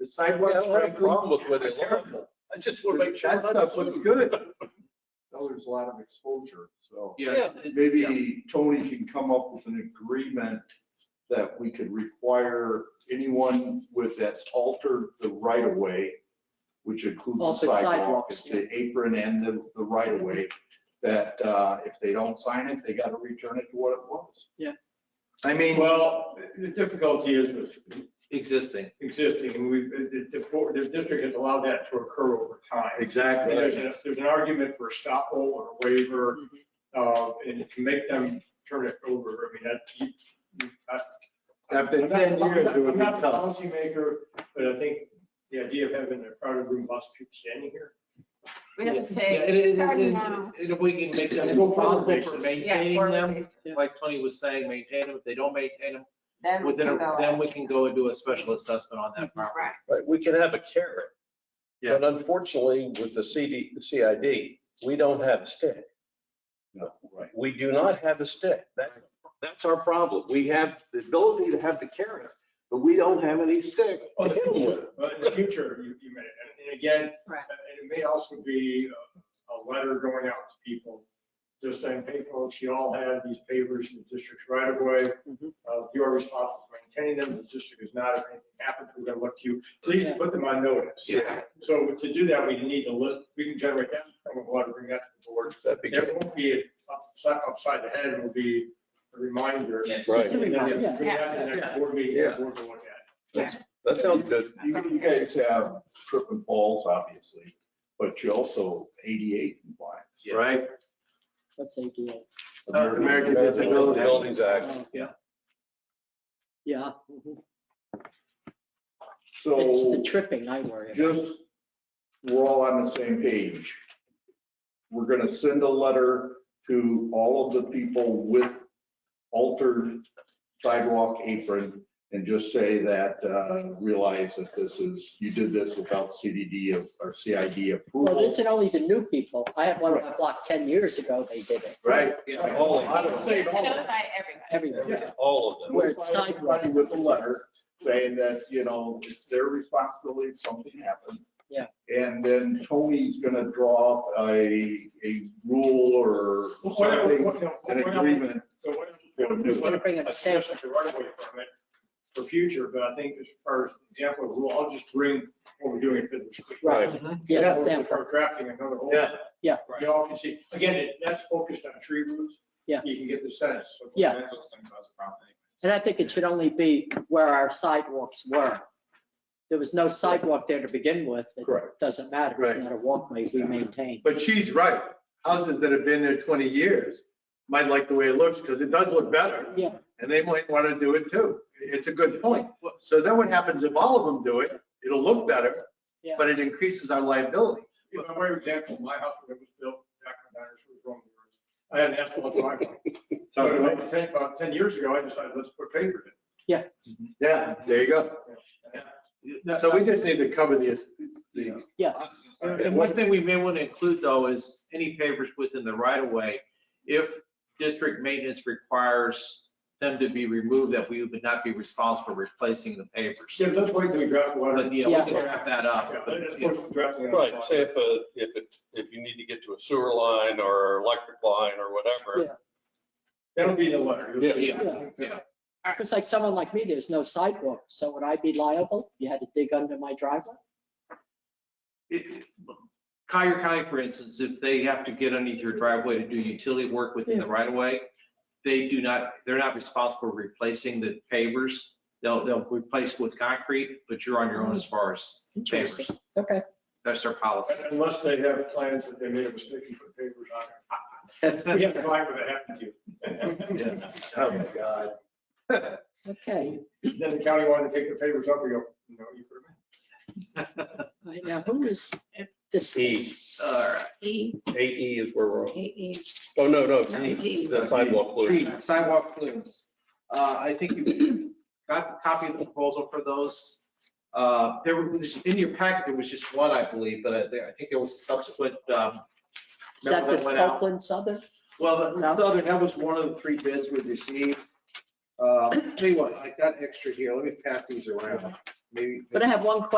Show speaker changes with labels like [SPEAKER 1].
[SPEAKER 1] Yeah, I
[SPEAKER 2] sidewalks,
[SPEAKER 1] don't have a
[SPEAKER 2] frankly,
[SPEAKER 1] problem with where they
[SPEAKER 2] are terrible.
[SPEAKER 1] look. I just want to make sure.
[SPEAKER 2] That
[SPEAKER 1] we're not
[SPEAKER 2] stuff looks
[SPEAKER 1] doing-
[SPEAKER 2] good.
[SPEAKER 3] Now there's a lot of exposure, so
[SPEAKER 2] Yes,
[SPEAKER 1] Yeah, it's- yeah.
[SPEAKER 3] maybe Tony can come up with an agreement that we could require anyone with, that's altered the right of way, which includes the
[SPEAKER 4] Altered
[SPEAKER 3] sidewalk,
[SPEAKER 4] sidewalks,
[SPEAKER 3] it's the apron and the, the right of way, that, uh, if they don't sign it, they gotta return it to what it was.
[SPEAKER 4] Yeah.
[SPEAKER 3] I mean,
[SPEAKER 5] Well, the difficulty is with
[SPEAKER 1] Existing.
[SPEAKER 5] existing, and we, the, the, board- the district has allowed that to occur over time. And There's,
[SPEAKER 3] exactly,
[SPEAKER 5] an- there's an argument for a stop or a waiver,
[SPEAKER 4] Mhm.
[SPEAKER 3] Mm-hmm.
[SPEAKER 5] uh, and if you make them turn it over, I mean, that. you- you- I-
[SPEAKER 3] After
[SPEAKER 5] I'm not-
[SPEAKER 3] 10 years, it would
[SPEAKER 5] I'm not
[SPEAKER 3] be
[SPEAKER 5] the
[SPEAKER 3] tough.
[SPEAKER 5] policymaker, but I think the idea of having a crowded room, lots of people standing here.
[SPEAKER 6] We have to
[SPEAKER 1] Yeah,
[SPEAKER 6] say,
[SPEAKER 1] and it- it-
[SPEAKER 6] starting
[SPEAKER 1] it-
[SPEAKER 6] now.
[SPEAKER 1] it- If we can make them
[SPEAKER 5] Go forward,
[SPEAKER 1] responsible for
[SPEAKER 5] basically.
[SPEAKER 1] maintaining
[SPEAKER 6] Yeah, forward,
[SPEAKER 1] them,
[SPEAKER 6] basically.
[SPEAKER 1] like Tony was saying, maintain them. If they don't maintain them,
[SPEAKER 6] then we
[SPEAKER 1] within,
[SPEAKER 6] can
[SPEAKER 1] a-
[SPEAKER 6] go.
[SPEAKER 1] then we can go and do a special assessment on that property.
[SPEAKER 6] Right.
[SPEAKER 7] Right, we can have a carrot.
[SPEAKER 1] Yeah.
[SPEAKER 7] But unfortunately, with the CD, the CID, we don't have a stick.
[SPEAKER 3] No, right.
[SPEAKER 7] We do not have a stick. That, that's our problem. We have the ability to have the carrot, but we don't have any stick.
[SPEAKER 5] Well,
[SPEAKER 7] to
[SPEAKER 5] in Oh, the
[SPEAKER 7] hit 'em with.
[SPEAKER 5] future, But in the future, you, you may, and- and again,
[SPEAKER 6] Right.
[SPEAKER 5] and it may also be a, a letter going out to people, just saying, hey, folks, you all have these pavers in the district's right of way.
[SPEAKER 4] Mhm.
[SPEAKER 5] Uh, You're responsible for maintaining them, the district is not, if anything happens, we're gonna look to you, please
[SPEAKER 4] Yeah.
[SPEAKER 5] put them on notice.
[SPEAKER 1] Yeah.
[SPEAKER 5] So to do that, we need to list, we can generate that, and we'll have to bring that to the board.
[SPEAKER 7] That'd be
[SPEAKER 5] It
[SPEAKER 7] good.
[SPEAKER 5] won't be upside, upside the head, it'll be a reminder.
[SPEAKER 1] Yes.
[SPEAKER 4] Just a
[SPEAKER 5] And then
[SPEAKER 4] reminder,
[SPEAKER 5] Bring that to the
[SPEAKER 1] Yeah.
[SPEAKER 5] next board meeting,
[SPEAKER 7] Yeah.
[SPEAKER 5] the board will look at. it.
[SPEAKER 7] That sounds good.
[SPEAKER 3] You you guys have tripping falls, obviously, but you also ADA compliance.
[SPEAKER 1] Yeah.
[SPEAKER 3] Right.
[SPEAKER 4] That's ADA.
[SPEAKER 1] Uh, American Disabilities.
[SPEAKER 7] Buildings Act.
[SPEAKER 4] Oh,
[SPEAKER 1] yeah.
[SPEAKER 4] Yeah, mhm.
[SPEAKER 3] So.
[SPEAKER 4] it's the tripping I worry about.
[SPEAKER 3] just, we're all on the same page. We're gonna send a letter to all of the people with altered sidewalk apron and just say that, uh, realize that this is, you did this without CDD of- or CID
[SPEAKER 4] Well,
[SPEAKER 3] approval.
[SPEAKER 4] this isn't only the new people. I had one on my block 10 years ago, they did it,
[SPEAKER 3] Right?
[SPEAKER 1] Yeah.
[SPEAKER 3] All of
[SPEAKER 6] We
[SPEAKER 3] them.
[SPEAKER 6] have to notify everybody.
[SPEAKER 4] everywhere.
[SPEAKER 3] Yeah.
[SPEAKER 7] All of them.
[SPEAKER 4] Where it's
[SPEAKER 3] Notify everybody
[SPEAKER 4] sidewalk.
[SPEAKER 3] With a letter saying that, you know, it's their responsibility if something happens.
[SPEAKER 4] Yeah.
[SPEAKER 3] And then Tony's gonna draw up a, a rule or
[SPEAKER 5] Well, what-
[SPEAKER 3] something,
[SPEAKER 5] what- you know,
[SPEAKER 3] an
[SPEAKER 5] what-
[SPEAKER 3] agreement.
[SPEAKER 5] so what-
[SPEAKER 4] He's gonna bring up a
[SPEAKER 5] I
[SPEAKER 4] sample.
[SPEAKER 5] suggested the right away from it for future, but I think as far as example of rule, I'll just bring what we're doing at Fiddler's Creek.
[SPEAKER 4] Right. Yeah,
[SPEAKER 5] Or
[SPEAKER 4] that's
[SPEAKER 5] we'll
[SPEAKER 4] them.
[SPEAKER 5] Start drafting another whole.
[SPEAKER 1] Yeah.
[SPEAKER 4] Yeah.
[SPEAKER 5] You all can see, again, it- that's focused on tree roots.
[SPEAKER 4] Yeah.
[SPEAKER 5] You can get the sense. of what
[SPEAKER 4] Yeah.
[SPEAKER 5] That's what's gonna cause a problem.
[SPEAKER 4] And I think it should only be where our sidewalks were. There was no sidewalk there to begin with. It
[SPEAKER 3] Correct.
[SPEAKER 4] doesn't matter.
[SPEAKER 2] Right.
[SPEAKER 4] It's not a walkway we maintain.
[SPEAKER 2] But she's right. Houses that have been there 20 years might like the way it looks because it does look better.
[SPEAKER 4] Yeah.
[SPEAKER 2] And they might want to do it too. It's a good point. So then what happens if all of them do it? It'll look better,
[SPEAKER 4] Yeah.
[SPEAKER 2] but it increases our liability.
[SPEAKER 5] You know, for example, my house when it was built, back when dinosaurs was wrong. I had an asphalt driveway. So about 10, about 10 years ago, I decided, let's put paper in.
[SPEAKER 2] Yeah, there you go.
[SPEAKER 5] And
[SPEAKER 2] So we just need to cover this. the-
[SPEAKER 1] And one thing we may want to include though is any pavers within the right of way. If district maintenance requires them to be removed, that we would not be responsible for replacing the pavers.
[SPEAKER 5] Jim, let's wait till we draft the letter.
[SPEAKER 1] But yeah, we can wrap that up.
[SPEAKER 5] Yeah,
[SPEAKER 1] but,
[SPEAKER 5] that's
[SPEAKER 1] yeah.
[SPEAKER 5] what's drafting it.
[SPEAKER 7] Right, say if, a- if, it- if you need to get to a sewer line or electric line or whatever.
[SPEAKER 4] Yeah.
[SPEAKER 5] That'll be in the letter. You'll see.
[SPEAKER 4] Yeah, yeah,
[SPEAKER 1] yeah.
[SPEAKER 4] It's like someone like me, there's no sidewalk. So would I be liable? You had to dig under my driveway?
[SPEAKER 1] It- Collier County, for instance, if they have to get underneath your driveway to do utility work within the right of way, they do not, they're not responsible for replacing the pavers. They'll, they'll replace with concrete, but you're on your own as far as
[SPEAKER 4] Interesting.
[SPEAKER 1] pavers.
[SPEAKER 4] Okay.
[SPEAKER 1] That's their policy.
[SPEAKER 5] Unless they have plans that they made a mistake and put papers on it. We have to find where that happened to you.
[SPEAKER 2] Oh, my God.
[SPEAKER 4] Okay.
[SPEAKER 5] Then the county wanted to take the papers up, we go, no, you put them
[SPEAKER 4] Right now, who is this?
[SPEAKER 7] E,
[SPEAKER 1] All right.
[SPEAKER 6] E,
[SPEAKER 7] eight E is where we're, on.
[SPEAKER 6] E, E.
[SPEAKER 7] oh, no, no,
[SPEAKER 6] No,
[SPEAKER 7] D,
[SPEAKER 6] D.
[SPEAKER 7] the sidewalk pollution.
[SPEAKER 1] Three, Sidewalk plumes. Uh, I think you got a copy of the proposal for those. Uh, There was, in your packet, there was just one, I believe, but I there- I think there was a subsequent. um,
[SPEAKER 4] Is that
[SPEAKER 1] remember
[SPEAKER 4] the
[SPEAKER 1] that went out?
[SPEAKER 4] Oakland Southern?
[SPEAKER 1] Well, the
[SPEAKER 4] No.
[SPEAKER 1] Southern, that was one of the three bids we received. Uh, Tell you what, I got extra here. Let me pass these around. Maybe.
[SPEAKER 4] But I have one question